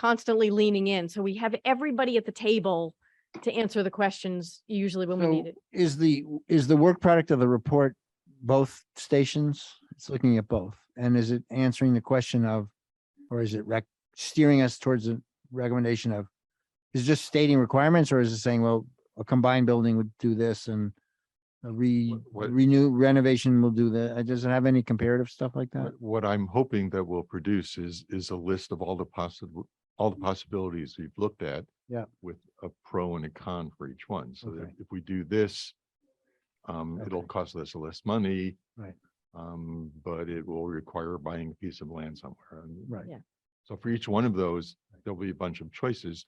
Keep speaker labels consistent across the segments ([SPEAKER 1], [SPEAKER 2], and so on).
[SPEAKER 1] constantly leaning in. So we have everybody at the table to answer the questions usually when we
[SPEAKER 2] So
[SPEAKER 1] need it.
[SPEAKER 2] Is the, is the work product of the report both stations? It's looking at both. And is it answering the question of, or is it rec, steering us towards the recommendation of? Is it just stating requirements or is it saying, well, a combined building would do this and a re,
[SPEAKER 3] what-
[SPEAKER 2] renew renovation will do that? Does it have any comparative stuff like that?
[SPEAKER 3] What- What I'm hoping that we'll produce is, is a list of all the possible, all the possibilities we've looked at.
[SPEAKER 2] Mm-hmm. Yeah.
[SPEAKER 3] With a pro and a con for each one. So that
[SPEAKER 2] Okay.
[SPEAKER 3] if we do this, um, it'll
[SPEAKER 2] Okay.
[SPEAKER 3] cost us less money.
[SPEAKER 2] Right.
[SPEAKER 3] Um, but it will require buying a piece of land somewhere. And
[SPEAKER 2] Right.
[SPEAKER 1] Yeah.
[SPEAKER 3] So for each one of those, there'll be a bunch of choices.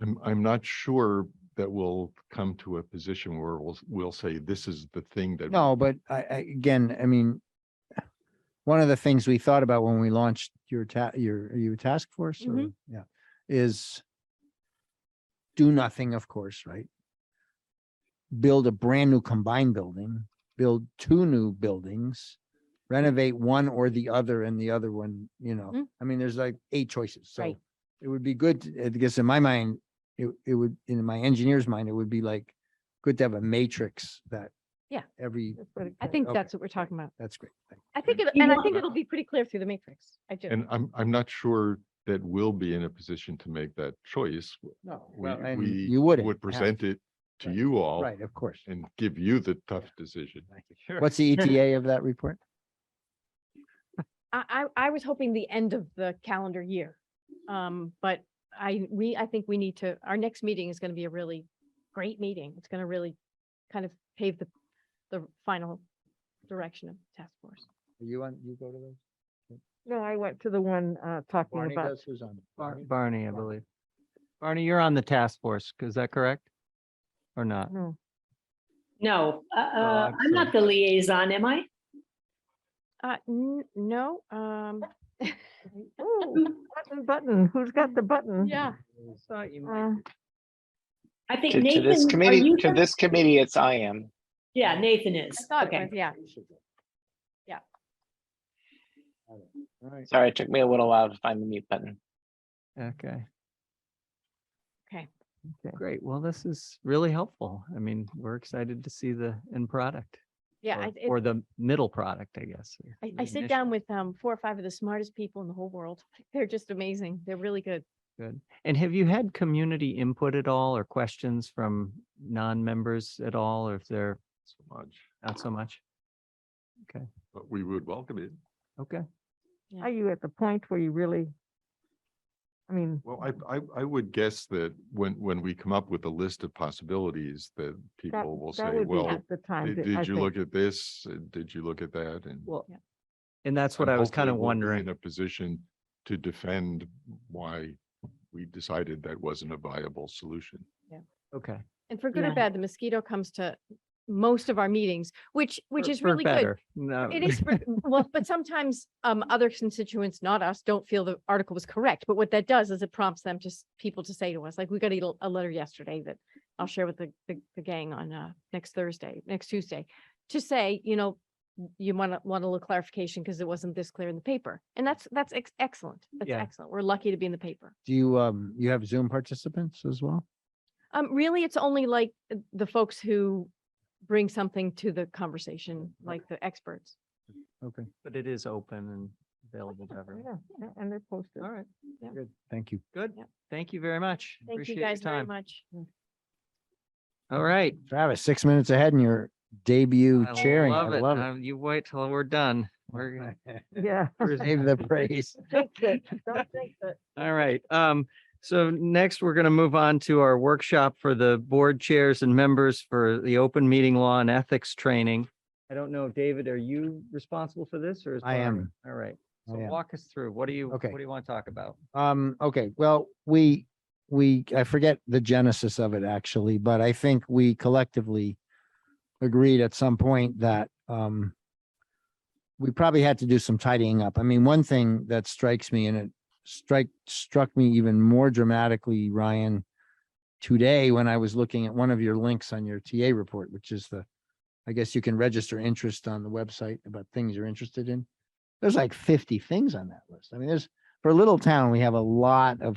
[SPEAKER 3] I'm, I'm not sure that we'll come to a position where we'll, we'll say, this is the thing that. we
[SPEAKER 2] No, but I, I, again, I mean, one of the things we thought about when we launched your ta, your, your task force, or-
[SPEAKER 1] Mhm.
[SPEAKER 2] yeah, is do nothing, of course, right? Build a brand new combined building, build two new buildings, renovate one or the other and the other one, you know,
[SPEAKER 1] Mm.
[SPEAKER 2] I mean, there's like eight choices, so
[SPEAKER 1] Right.
[SPEAKER 2] it would be good, to- I guess in my mind, it, it would, in my engineer's mind, it would be like, good to have a matrix that
[SPEAKER 1] Yeah.
[SPEAKER 2] every
[SPEAKER 1] I think
[SPEAKER 2] okay.
[SPEAKER 1] that's what we're talking about.
[SPEAKER 2] that's great. Thank
[SPEAKER 1] I think, it-
[SPEAKER 4] You
[SPEAKER 1] and I
[SPEAKER 4] want-
[SPEAKER 1] think it'll be pretty clear through the matrix. I do.
[SPEAKER 3] And I'm, I'm not sure that we'll be in a position to make that choice.
[SPEAKER 2] No.
[SPEAKER 3] We,
[SPEAKER 2] and
[SPEAKER 3] we
[SPEAKER 2] you wouldn't have
[SPEAKER 3] would present it to
[SPEAKER 2] Right.
[SPEAKER 3] you all
[SPEAKER 2] Right, of course.
[SPEAKER 3] and give you the tough decision.
[SPEAKER 2] What's the ETA of that report?
[SPEAKER 1] I, I, I was hoping the end of the calendar year. Um, but I, we, I think we need to, our next meeting is gonna be a really great meeting. It's gonna really kind of pave the, the final direction of the task force.
[SPEAKER 2] You on, you go to those?
[SPEAKER 4] No, I went to the one uh talking
[SPEAKER 2] Barney
[SPEAKER 4] about,
[SPEAKER 2] does, who's on?
[SPEAKER 5] Bar-
[SPEAKER 2] Barney?
[SPEAKER 5] Barney, I
[SPEAKER 2] Barney.
[SPEAKER 5] believe. Barney, you're on the task force, is that correct? Or not?
[SPEAKER 4] no,
[SPEAKER 6] No, uh, uh,
[SPEAKER 5] I'm
[SPEAKER 6] I'm
[SPEAKER 5] sorry.
[SPEAKER 6] not the liaison, am I?
[SPEAKER 1] Uh, n- no, um,
[SPEAKER 4] Ooh, button, button, who's got the button?
[SPEAKER 1] yeah,
[SPEAKER 4] Uh,
[SPEAKER 6] I think
[SPEAKER 7] To, to
[SPEAKER 6] Nathan.
[SPEAKER 7] this
[SPEAKER 6] are
[SPEAKER 7] committee,
[SPEAKER 6] you
[SPEAKER 7] to
[SPEAKER 6] the-
[SPEAKER 7] this committee, it's I am.
[SPEAKER 6] Yeah, Nathan is.
[SPEAKER 1] I thought it
[SPEAKER 6] Okay.
[SPEAKER 1] was, yeah.
[SPEAKER 2] You should go.
[SPEAKER 1] Yeah.
[SPEAKER 2] All right, all right.
[SPEAKER 7] Sorry, it took me a little while to find the mute button.
[SPEAKER 5] Okay.
[SPEAKER 1] Mm-hmm. Okay.
[SPEAKER 5] Okay, Great, well, this is really helpful. I mean, we're excited to see the end product.
[SPEAKER 1] Yeah,
[SPEAKER 5] or-
[SPEAKER 1] I, it-
[SPEAKER 5] Or the middle product, I guess. or
[SPEAKER 1] I,
[SPEAKER 5] the
[SPEAKER 1] I sit down
[SPEAKER 5] initial.
[SPEAKER 1] with, um, four or five of the smartest people in the whole world. They're just amazing. They're really good.
[SPEAKER 5] Good. And have you had community input at all or questions from non-members at all, or if they're
[SPEAKER 3] So much,
[SPEAKER 5] not so much?
[SPEAKER 3] but we would welcome it.
[SPEAKER 5] Okay.
[SPEAKER 4] Are you at the point where you really? I mean,
[SPEAKER 3] Well, I, I, I would guess that when, when we come up with a list of possibilities, that
[SPEAKER 4] that
[SPEAKER 3] people will say,
[SPEAKER 4] that would be
[SPEAKER 3] well,
[SPEAKER 4] at the
[SPEAKER 3] did
[SPEAKER 4] time. that I
[SPEAKER 3] did you
[SPEAKER 4] think-
[SPEAKER 3] look at this? Uh, Did you look at that? And.
[SPEAKER 5] Well,
[SPEAKER 1] Yeah.
[SPEAKER 5] and that's what
[SPEAKER 3] and
[SPEAKER 5] I was
[SPEAKER 3] hopefully
[SPEAKER 5] kind of
[SPEAKER 3] we'll be
[SPEAKER 5] wondering.
[SPEAKER 3] In a position to defend why we decided that wasn't a viable solution.
[SPEAKER 5] Okay.
[SPEAKER 1] And for good or
[SPEAKER 4] Yeah.
[SPEAKER 1] bad, the mosquito comes to most of our meetings, which, which
[SPEAKER 5] for-
[SPEAKER 1] is
[SPEAKER 5] for
[SPEAKER 1] really good.
[SPEAKER 5] better. No.
[SPEAKER 1] It is, for- well, but sometimes um other constituents, not us, don't feel the article was correct. But what that does is it prompts them to, s- people to say to us, like, we got a, l- a letter yesterday that I'll share with the, the, the gang on uh next Thursday, next Tuesday, to say, you know, "Y- you want to, want a little clarification because it wasn't this clear in the paper. And that's, that's ex- excellent. That's
[SPEAKER 5] Yeah.
[SPEAKER 1] excellent. We're lucky to be in the paper.
[SPEAKER 2] Do you, um, you have Zoom participants as well?
[SPEAKER 1] Um, really, it's only like uh, the folks who bring something to the conversation, like the experts.
[SPEAKER 2] Okay,
[SPEAKER 5] But it is open and available
[SPEAKER 1] Oh,
[SPEAKER 5] to everyone.
[SPEAKER 4] Yeah, yeah, and they're posted.
[SPEAKER 5] All right,
[SPEAKER 2] good. Thank you.
[SPEAKER 5] good.
[SPEAKER 1] Yep.
[SPEAKER 5] Thank you very much.
[SPEAKER 1] Thank
[SPEAKER 5] Appreciate
[SPEAKER 1] you
[SPEAKER 5] your
[SPEAKER 1] guys very
[SPEAKER 5] time.
[SPEAKER 1] much.
[SPEAKER 5] All right.
[SPEAKER 2] Travis, six minutes ahead in your debut
[SPEAKER 5] I
[SPEAKER 2] chairing. I
[SPEAKER 5] love it.
[SPEAKER 2] love
[SPEAKER 5] Um, You wait till we're done. We're gonna-
[SPEAKER 2] it.
[SPEAKER 4] Yeah.
[SPEAKER 5] we're-
[SPEAKER 2] Save the praise.
[SPEAKER 4] Don't think that.
[SPEAKER 5] All right. Um, so next we're going to move on to our workshop for the board chairs and members for the open meeting law and ethics training. I don't know, David, are you responsible for this or is?
[SPEAKER 2] I
[SPEAKER 5] Bonnie?
[SPEAKER 2] am.
[SPEAKER 5] All right. So
[SPEAKER 2] I am.
[SPEAKER 5] walk us through. What do you, what
[SPEAKER 2] Okay.
[SPEAKER 5] do you want to talk about?
[SPEAKER 2] Um, okay, well, we, we, I forget the genesis of it actually, but I think we collectively agreed at some point that, um, we probably had to do some tidying up. I mean, one thing that strikes me and it strike, struck me even more dramatically, Ryan, today when I was looking at one of your links on your TA report, which is the, I guess you can register interest on the website about things you're interested in. There's like fifty things on that list. I mean, there's for a little town, we have a lot of